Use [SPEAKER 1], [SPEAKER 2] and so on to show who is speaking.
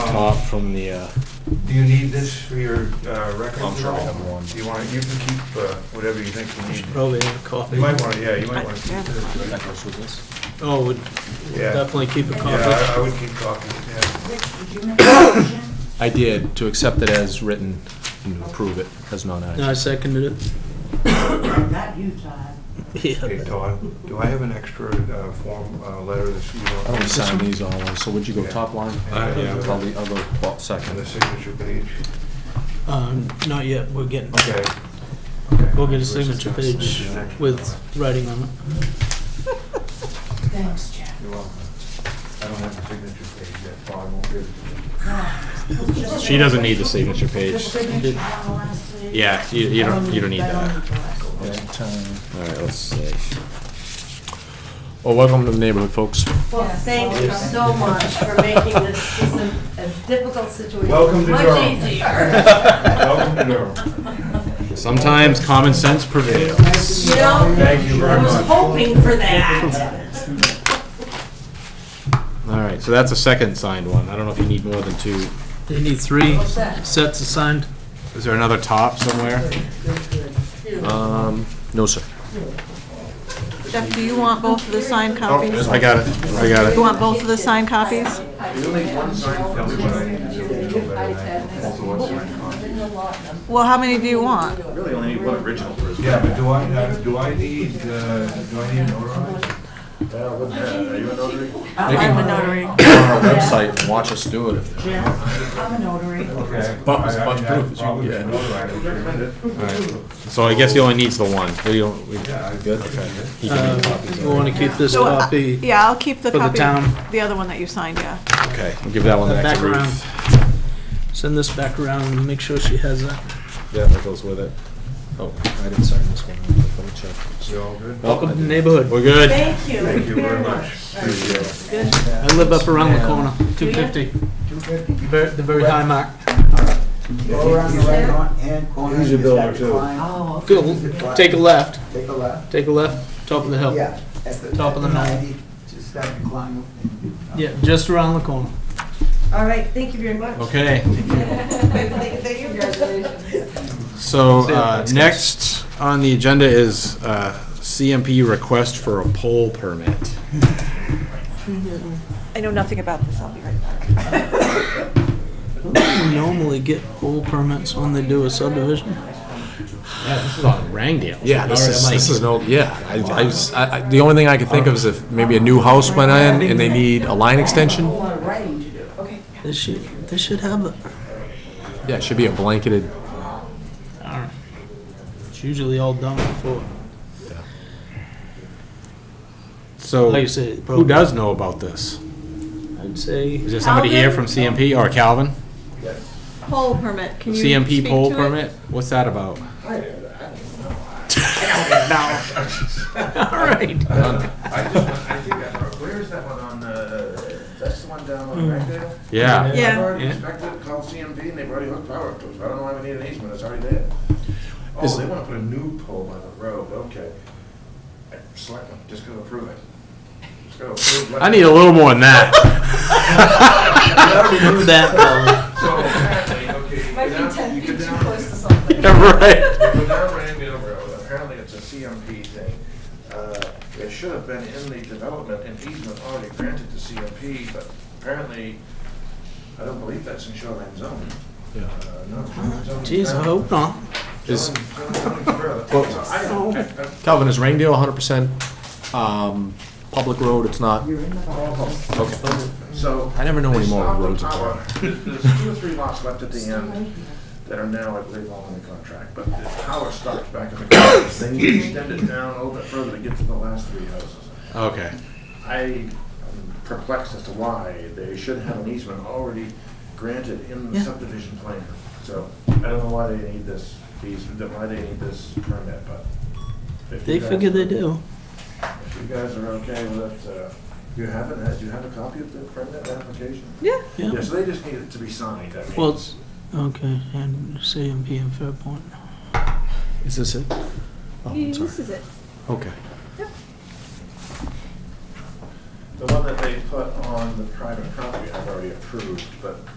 [SPEAKER 1] top from the, uh,
[SPEAKER 2] Do you need this for your uh, records?
[SPEAKER 3] I'm sure
[SPEAKER 2] at
[SPEAKER 3] we
[SPEAKER 2] all?
[SPEAKER 3] have one.
[SPEAKER 2] Do you want, you can keep uh, whatever you think you need.
[SPEAKER 4] Probably have a coffee.
[SPEAKER 2] You might want to, yeah, you might want to
[SPEAKER 5] Yeah.
[SPEAKER 2] keep this. right?
[SPEAKER 4] Oh, would
[SPEAKER 2] Yeah.
[SPEAKER 4] definitely keep a
[SPEAKER 2] Yeah,
[SPEAKER 4] coffee.
[SPEAKER 2] I I would keep talking, yeah.
[SPEAKER 5] Rich, did you make a motion?
[SPEAKER 1] I did, to accept it as written and approve it as
[SPEAKER 4] No, I
[SPEAKER 1] non-action.
[SPEAKER 4] seconded it.
[SPEAKER 5] Not you, Todd.
[SPEAKER 2] Hey,
[SPEAKER 4] Yeah.
[SPEAKER 2] Todd, do I have an extra uh, form, uh, letter that you
[SPEAKER 1] I
[SPEAKER 2] want?
[SPEAKER 1] don't sign these all, so would you go
[SPEAKER 2] Yeah.
[SPEAKER 1] top line?
[SPEAKER 2] Uh, yeah.
[SPEAKER 1] I'll the other top
[SPEAKER 2] On the
[SPEAKER 1] second.
[SPEAKER 2] signature page?
[SPEAKER 4] Um, not yet, we're getting,
[SPEAKER 2] Okay. Okay.
[SPEAKER 4] we'll get a
[SPEAKER 2] Rich is
[SPEAKER 4] signature
[SPEAKER 2] gonna send
[SPEAKER 4] page
[SPEAKER 2] you an extra
[SPEAKER 4] with
[SPEAKER 2] letter.
[SPEAKER 4] writing on it.
[SPEAKER 5] Thanks, Jeff.
[SPEAKER 2] You're welcome. I don't have the signature page yet, Todd won't give it to me.
[SPEAKER 1] She doesn't need the signature
[SPEAKER 5] The
[SPEAKER 1] page.
[SPEAKER 5] signature on the last page.
[SPEAKER 1] Yeah, you, you don't, you don't need
[SPEAKER 5] I
[SPEAKER 1] that.
[SPEAKER 5] don't need that.
[SPEAKER 1] All right, let's see. Well, Oh, welcome to the neighborhood, folks.
[SPEAKER 6] Well, thank you so much for making this, system a difficult situation
[SPEAKER 2] Welcome to Durham.
[SPEAKER 6] much easier.
[SPEAKER 2] Welcome to Durham.
[SPEAKER 1] Sometimes common sense prevails.
[SPEAKER 6] You know,
[SPEAKER 2] Thank you very
[SPEAKER 6] I was
[SPEAKER 2] much.
[SPEAKER 6] hoping for that.
[SPEAKER 1] All right, so that's a second signed one. I don't know if you need more than two.
[SPEAKER 4] They need three
[SPEAKER 6] What's that?
[SPEAKER 4] sets assigned.
[SPEAKER 1] Is there another top somewhere? Um, no, sir.
[SPEAKER 5] Jeff, do you want both of the signed
[SPEAKER 4] Oh,
[SPEAKER 5] copies?
[SPEAKER 1] I got it, I got it.
[SPEAKER 5] You want both of the signed copies? Well, how many do you want?
[SPEAKER 2] Yeah, but do I, uh, do I need, uh, do I need an notarized?
[SPEAKER 5] I'm a notary.
[SPEAKER 1] Go on our website and watch us do it if they
[SPEAKER 5] Jeff, I'm a notary.
[SPEAKER 2] Okay.
[SPEAKER 1] Bump-
[SPEAKER 2] I- I
[SPEAKER 1] bump
[SPEAKER 2] mean,
[SPEAKER 1] proof
[SPEAKER 2] I
[SPEAKER 1] is
[SPEAKER 2] probably
[SPEAKER 1] you can
[SPEAKER 2] should notarize it.
[SPEAKER 1] So I guess he only needs the one. We don't, we,
[SPEAKER 2] Yeah, I-
[SPEAKER 1] good?
[SPEAKER 2] okay.
[SPEAKER 1] He can make
[SPEAKER 4] Uh,
[SPEAKER 1] copies
[SPEAKER 4] we
[SPEAKER 1] of
[SPEAKER 4] want to keep this
[SPEAKER 5] So, uh,
[SPEAKER 4] copy.
[SPEAKER 5] Yeah, I'll keep the
[SPEAKER 4] For the
[SPEAKER 5] copy,
[SPEAKER 4] town.
[SPEAKER 5] the other one that you signed, yeah.
[SPEAKER 1] it. Okay, we'll give that one back
[SPEAKER 4] Back
[SPEAKER 1] to
[SPEAKER 4] around.
[SPEAKER 1] Ruth.
[SPEAKER 4] Send this back around and make sure she has that.
[SPEAKER 1] Yeah, that goes with it. Oh, I didn't sign this one. Let me check.
[SPEAKER 2] We all good?
[SPEAKER 4] Welcome to the neighborhood.
[SPEAKER 1] We're good.
[SPEAKER 6] Thank you
[SPEAKER 2] Thank you
[SPEAKER 6] very
[SPEAKER 2] very
[SPEAKER 6] much.
[SPEAKER 2] much. Appreciate it.
[SPEAKER 4] I live up around the corner, 250. Ver- The very high mark.
[SPEAKER 7] Go around the right on- hand corner.
[SPEAKER 2] He's a
[SPEAKER 7] just
[SPEAKER 2] builder,
[SPEAKER 7] have to
[SPEAKER 2] too.
[SPEAKER 7] climb,
[SPEAKER 5] Oh, okay.
[SPEAKER 4] Go, take a left,
[SPEAKER 7] Take a left.
[SPEAKER 4] take a left, top of the hill.
[SPEAKER 7] Yeah. at the-
[SPEAKER 4] Top
[SPEAKER 7] at
[SPEAKER 4] of the mountain.
[SPEAKER 7] ninety, Just have to climb. up and-
[SPEAKER 4] Yeah, just around the corner.
[SPEAKER 6] All right, thank you very much.
[SPEAKER 1] Okay,
[SPEAKER 6] Thank you. Congratulations.
[SPEAKER 1] so uh, next on the agenda is uh, CMP request for a poll permit.
[SPEAKER 5] I know nothing about this, I'll be right back.
[SPEAKER 4] Don't we normally get pole permits when they do a subdivision?
[SPEAKER 1] Yeah, this is on Rangdale.
[SPEAKER 8] Yeah, this is, this is an old, yeah. I, I was- I, I, the only thing I could think of is if maybe a new house went in and they need a line extension.
[SPEAKER 4] They should, they should have it.
[SPEAKER 8] Yeah, it should be a blanketed,
[SPEAKER 4] It's usually all done before.
[SPEAKER 1] So,
[SPEAKER 4] Like you said,
[SPEAKER 1] who does know about this?
[SPEAKER 4] I'd say,
[SPEAKER 1] Is there somebody here from
[SPEAKER 6] Calvin?
[SPEAKER 1] CMP or Calvin?
[SPEAKER 6] Poll permit, can you speak
[SPEAKER 1] CMP poll
[SPEAKER 6] to it?
[SPEAKER 1] permit? What's that about?
[SPEAKER 4] all right.
[SPEAKER 2] I just, I think, I- where is that one on, uh, that's the one down on Ragdale?
[SPEAKER 1] Yeah.
[SPEAKER 2] I've
[SPEAKER 6] Yeah,
[SPEAKER 2] already inspected, it, called CMP, and they've already hooked power up to us, I don't know why we need an easement, it's already there. Oh,
[SPEAKER 1] Is-
[SPEAKER 2] they wanna put a new pole on the road, okay. Selectmen, just gonna approve it. Just gotta approve what-
[SPEAKER 1] I need a little more than that.
[SPEAKER 4] Remove that, Colin.
[SPEAKER 2] So, apparently, okay. you go down- you go down-
[SPEAKER 1] Right.
[SPEAKER 2] Go down Randale Road, apparently it's a CMP thing. Uh, It should have been in the development and easement already granted to CMP, but apparently, I don't believe that's in shoreline zone. Uh, no, shoreline zone is
[SPEAKER 4] Jeez, I
[SPEAKER 2] down.
[SPEAKER 4] hope not.
[SPEAKER 1] Is-
[SPEAKER 2] Shoreline- shoreline zone is further. So I don't- I- I-
[SPEAKER 8] Calvin, is Rangdale hundred percent, um, public road? It's not,
[SPEAKER 2] So.
[SPEAKER 8] I never know
[SPEAKER 2] they
[SPEAKER 8] anymore
[SPEAKER 2] stopped the
[SPEAKER 8] roads in
[SPEAKER 2] power.
[SPEAKER 8] Florida.
[SPEAKER 2] There's two or three lots left at the end that are now, I believe, all in the contract, but the power stops back in the corner. They extend it down a little bit further to get to the last three houses.
[SPEAKER 1] Okay.
[SPEAKER 2] I am perplexed as to why they should have an easement already granted in the
[SPEAKER 4] Yeah.
[SPEAKER 2] subdivision plan. So I don't know why they need this, easement, why they need this permit, but. if you
[SPEAKER 4] They
[SPEAKER 2] guys-
[SPEAKER 4] figure they do.
[SPEAKER 2] If you guys are okay with it, uh, you have it, uh, do you have a copy of the permit application?
[SPEAKER 5] Yeah.
[SPEAKER 4] Yeah.
[SPEAKER 2] Yes, they just need it to be signed, I mean.
[SPEAKER 4] Well, it's, okay, and CMP and Fairpoint.
[SPEAKER 8] is this it? Oh, I'm sorry.
[SPEAKER 6] this is it.
[SPEAKER 8] Okay.
[SPEAKER 2] The one that they put on the private property, I've already approved, but